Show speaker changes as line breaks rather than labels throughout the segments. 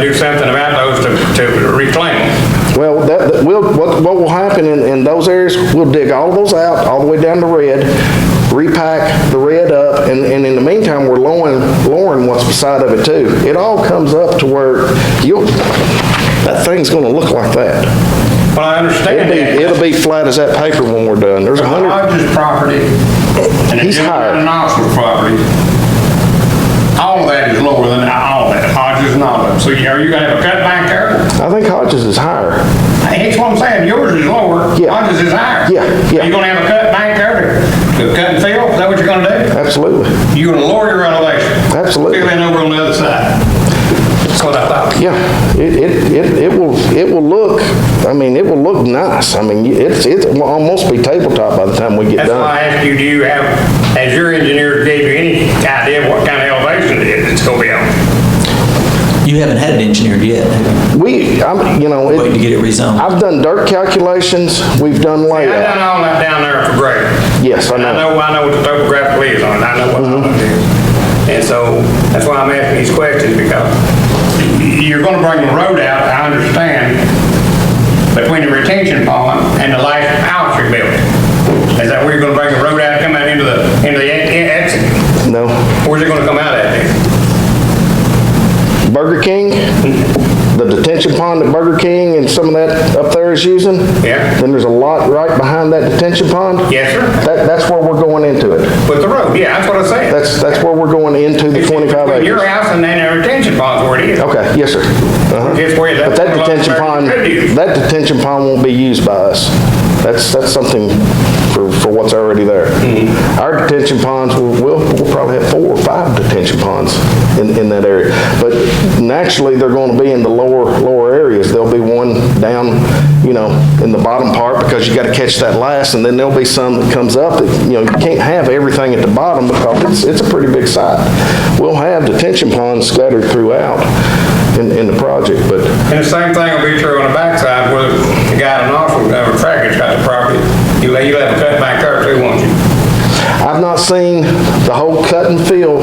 do something about those to, to reclaim them.
Well, that, that- we'll, what, what will happen in, in those areas, we'll dig all of those out, all the way down to red, repack the red up, and, and in the meantime, we're lowering, lowering what's beside of it too. It all comes up to where you'll, that thing's gonna look like that.
Well, I
It'll
understand
be,
that.
it'll be flat as that paper when we're done. There's a hundred,
Hodges property, and if
He's
you look at
hired.
an Oxford property, all of that is lower than all that, Hodges and all of it. So you- are you gonna have a cutback there?
I think Hodges is higher.
That's what I'm saying, yours is lower,
Yeah.
Hodges is higher.
Yeah, yeah.
Are you gonna have a cutback there to to cut and fill? Is that what you're gonna do?
Absolutely,
You're gonna lower your elevation.
Absolutely.
Fill in over on the other side. That's what I thought.
yeah. It, it, it it will, it will look, I mean, it will look nice. I mean, it's, it's, will almost be tabletop by the time we get
That's
done.
why I asked you, do you have, has your engineer gave you any idea what kind of elevation it is it's gonna be on?
You haven't had it engineered yet, have
We, I'm, you know,
you? Waiting to
it,
get it rezoned.
I've done dirt calculations, we've done
I done
layout.
all that down there for grade.
Yes, I
I
know.
know, I know what the topographical is on it, I know what all it is. And so, that's why I'm asking these questions, because you're gonna bring the road out, I understand, between the retention pond and the last house you're building. Is that where you're gonna bring the road out, come out into the, into the e- e- exit?
No.
Where's it gonna come out at then?
Burger King, the detention pond that Burger King and some of that up there is using.
Yeah.
Then there's a lot right behind that detention pond.
Yes, sir,
That, that's where we're going into it.
with the road, yeah, that's what I'm saying.
That's, that's where we're going into the
It's
25
between Your
acres.
house and then the retention pond's where it is.
Okay, yes, sir. Uh-huh.
It's where that.
But that detention pond, that detention pond won't be used by us. That's, that's something for, for what's already there. Our detention ponds, will- we'll, we'll probably have four or five detention ponds in, in that area. But naturally, they're gonna be in the lower, lower areas. There'll be one down, you know, in the bottom part because you gotta catch that last. And then there'll be some that comes up that, you know, you can't have everything at the bottom because it's, it's a pretty big site. We'll have detention ponds scattered throughout in, in the project, but
And the same thing will be true on the backside where the guy in Knoxville, uh, Tracker's got the property. You'll, you'll have a cut back there too, won't you?
I've not seen the whole cut and fill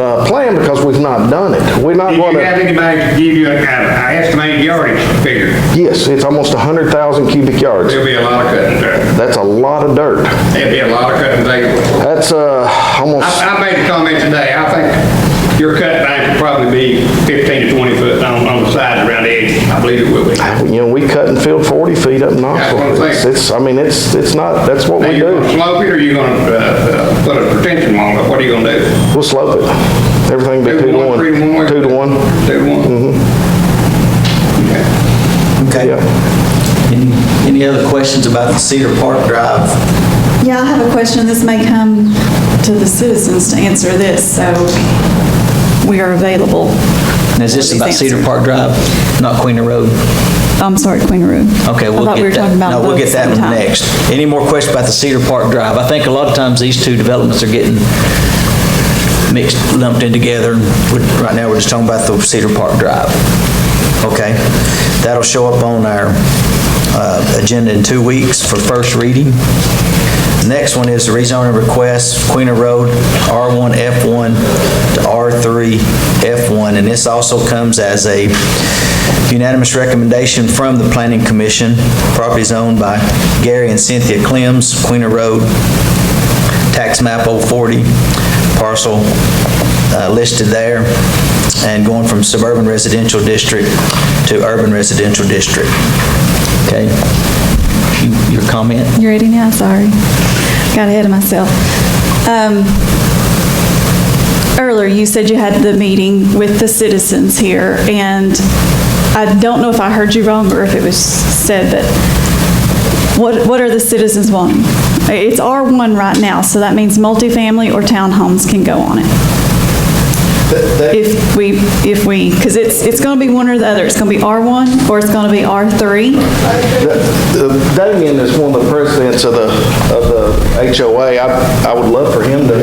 uh, plan because we've not done it. We're not
Did
going
you have
to,
anybody to give you an an estimated yardage figure?
yes, it's almost 100,000 cubic yards.
There'll be a lot of cutting there.
That's a lot of dirt.
There'll be a lot of cutting there.
That's uh, almost,
I, I made a comment today, I think your cut back will probably be 15 to 20 foot on, on the sides around the edge. I believe it will be.
you know, we cut and filled 40 feet up in
what I'm
Knoxville.
saying.
It's- It's, I mean, it's, it's not, that's what
Now,
we
you're gonna
do.
slope it, or you're gonna, uh, uh, put a retention wall up, what are you gonna do?
We'll slope it. Everything be two to one.
Three to one?
Two to one,
Two to one? Okay.
Okay.
yeah.
Any any other questions about the Cedar Park Drive?
Yeah, I have a question. This may come to the citizens to answer this, so we are available.
Now, Is this about Cedar Park Drive, not Queen of Road?
I'm sorry, Queen Road.
Okay,
I
we'll
thought we were
get
talking
that.
about
No, we'll
both
get that
at the
one
same time.
next. Any more questions about the Cedar Park Drive? I think a lot of times these two developments are getting mixed, lumped in together. and we're- Right now, we're just talking about the Cedar Park Drive. Okay? That'll show up on our uh, agenda in two weeks for first reading. Next one is the rezoning request, Queen of Road, R1F1 to R3F1. And this also comes as a unanimous recommendation from the Planning Commission. Property is owned by Gary and Cynthia Clems, Queen of Road tax map 040, parcel uh, listed there, and going from suburban residential district to urban residential district. Okay? You- Your comment?
You ready now? Sorry. Got ahead of myself. Um, Earlier, you said you had the meeting with the citizens here, and I don't know if I heard you wrong or if it was said, but what, what are the citizens wanting? It's R1 right now, so that means multifamily or townhomes can go on it. If we, if we, because it's, it's going to be one or the other. It's going to be R1 or it's going to be R3.
That- That again is one of the presidents of the, of the HOA. I, I would love for him to,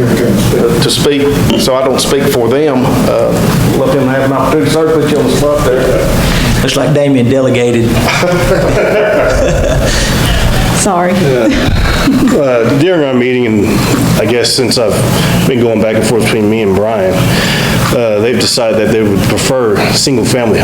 to speak, so I don't speak for them. Uh, Let him have an opportunity. Sir, put you on the spot there.
Looks like Damien delegated.
Sorry.
Uh, During our meeting, and I guess since I've been going back and forth between me and Brian, uh, they've decided that they would prefer single-family homes.